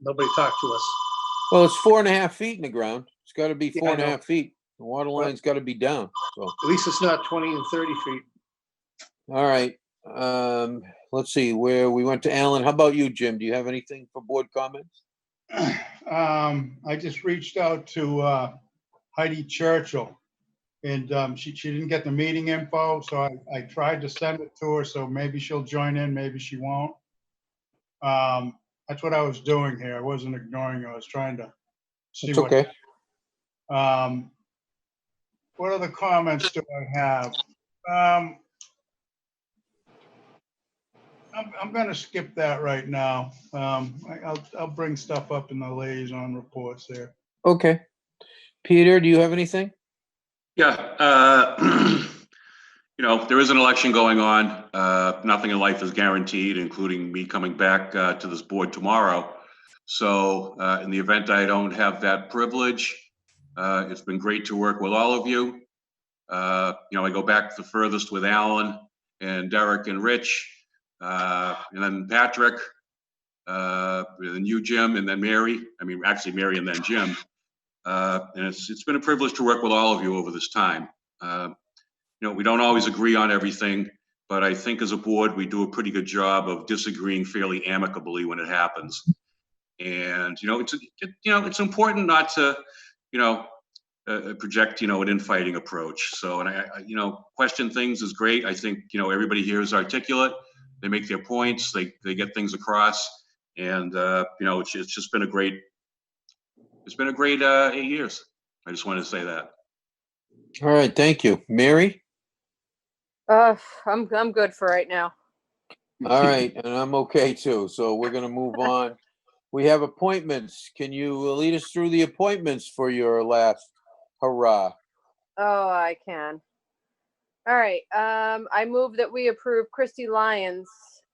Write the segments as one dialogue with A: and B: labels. A: Nobody talked to us.
B: Well, it's four and a half feet in the ground. It's gotta be
A: Yeah,
B: four
A: I
B: and a
A: know.
B: half feet. The water line's gotta be down, so,
A: At least it's not 20 and 30 feet.
B: all right. Um, let's see, where, we went to Alan. How about you, Jim? Do you have anything for board comments?
C: Um, I just reached out to uh, Heidi Churchill. And um, she, she didn't get the meeting info, so I, I tried to send it to her, so maybe she'll join in, maybe she won't. Um, That's what I was doing here. I wasn't ignoring her. I was trying to see
B: It's
C: what.
B: okay.
C: Um, what other comments do I have? Um, I'm, I'm gonna skip that right now. Um, I, I'll, I'll bring stuff up in the liaison reports there.
B: Okay. Peter, do you have anything?
D: Yeah, uh, you know, there is an election going on. Uh, Nothing in life is guaranteed, including me coming back uh, to this board tomorrow. So uh, in the event I don't have that privilege, uh, it's been great to work with all of you. Uh, You know, I go back the furthest with Alan and Derek and Rich, uh, and then Patrick, uh, and then you, Jim, and then Mary. I mean, actually, Mary and then Jim. Uh, And it's, it's been a privilege to work with all of you over this time. Uh, You know, we don't always agree on everything, but I think as a board, we do a pretty good job of disagreeing fairly amicably when it happens. And, you know, it's, it- you know, it's important not to, you know, uh, project, you know, an infighting approach. So, and I, I- you know, question things is great. I think, you know, everybody here is articulate. They make their points, they, they get things across. And, uh, you know, it's, it's just been a great, it's been a great uh, eight years. I just wanted to say that.
B: All right, thank you. Mary?
E: Uh, I'm, I'm good for right now.
B: All right, and I'm okay too, so we're gonna move on. We have appointments. Can you lead us through the appointments for your last hurrah?
E: Oh, I can. All right, um, I move that we approve Christy Lyons,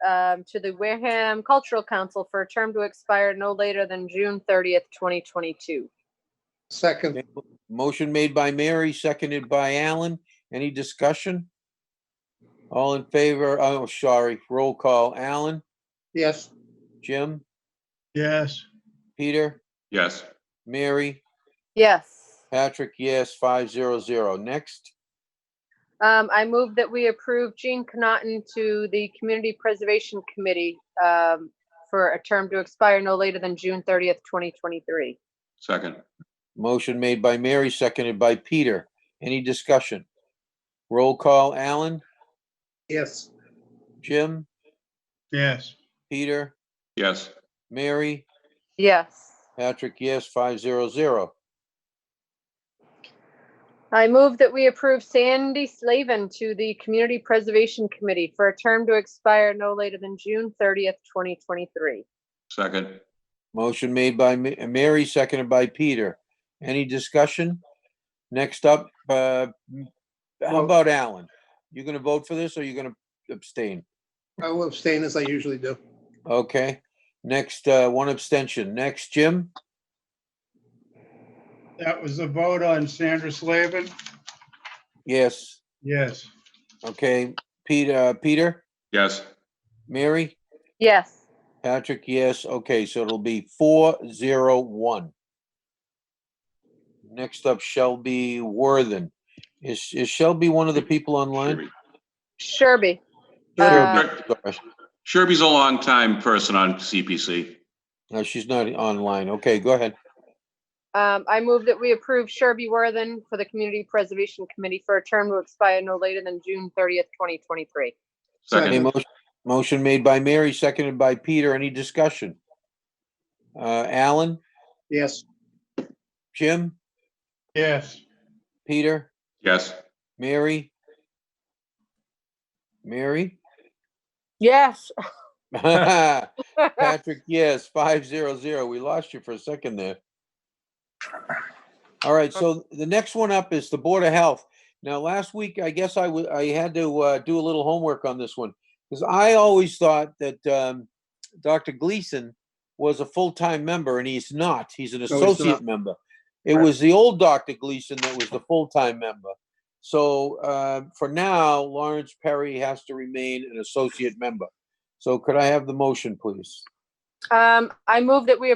E: um, to the Wareham Cultural Council for a term to expire no later than June thirtieth, twenty twenty-two.
A: Second,
B: Motion made by Mary, seconded by Alan. Any discussion? All in favor? Oh, sorry, roll call. Alan,
A: yes,
B: Jim,
C: Yes,
B: Peter,
D: Yes.
B: Mary,
E: Yes,
B: Patrick, yes, five zero zero. Next,
E: um, I move that we approve Jean Connaughton to the Community Preservation Committee, um, for a term to expire no later than June thirtieth, twenty twenty-three.
D: Second.
B: motion made by Mary, seconded by Peter. Any discussion? Roll call. Alan,
A: yes,
B: Jim,
C: yes,
B: Peter,
D: Yes.
B: Mary,
E: Yes.
B: Patrick, yes, five zero zero.
E: I move that we approve Sandy Slavin to the Community Preservation Committee for a term to expire no later than June thirtieth, twenty twenty-three.
D: Second.
B: Motion made by Ma- Mary, seconded by Peter. Any discussion? Next up, uh, how
A: Well-
B: about Alan? You gonna vote for this or you gonna abstain?
A: I will abstain as I usually do.
B: Okay, next, uh, one abstention. Next, Jim?
C: that was the vote on Sandra Slavin.
B: Yes,
C: Yes,
B: okay, Peter, Peter,
D: Yes.
B: Mary,
E: Yes,
B: Patrick, yes, okay, so it'll be four zero one. Next up, Shelby Worthen. Is, is Shelby one of the people online?
D: Sherby.
B: Shelby,
E: Sherby. Uh,
D: Sher-
B: sorry.
D: Sherby's a longtime person on CPC.
B: No, she's not online. Okay, go ahead.
E: Um, I move that we approve Sherby Worthen for the Community Preservation Committee for a term to expire no later than June thirtieth, twenty twenty-three.
A: Second.
B: A
D: Second.
B: motion, motion made by Mary, seconded by Peter. Any discussion? Uh, Alan,
A: Yes,
B: Jim,
C: yes,
B: Peter,
D: Yes.
B: Mary? Mary?
E: Yes.
B: Patrick, yes, five zero zero. We lost you for a second there. All right, so the next one up is the Board of Health. Now, last week, I guess I wa- I had to uh, do a little homework on this one. Because I always thought that um, Dr. Gleason was a full-time member and he's not. He's an
A: not.
B: associate member. It
A: Right.
B: was the old Dr. Gleason that was the full-time member. So uh, for now, Lawrence Perry has to remain an associate member. So could I have the motion, please?
E: Um, I move that we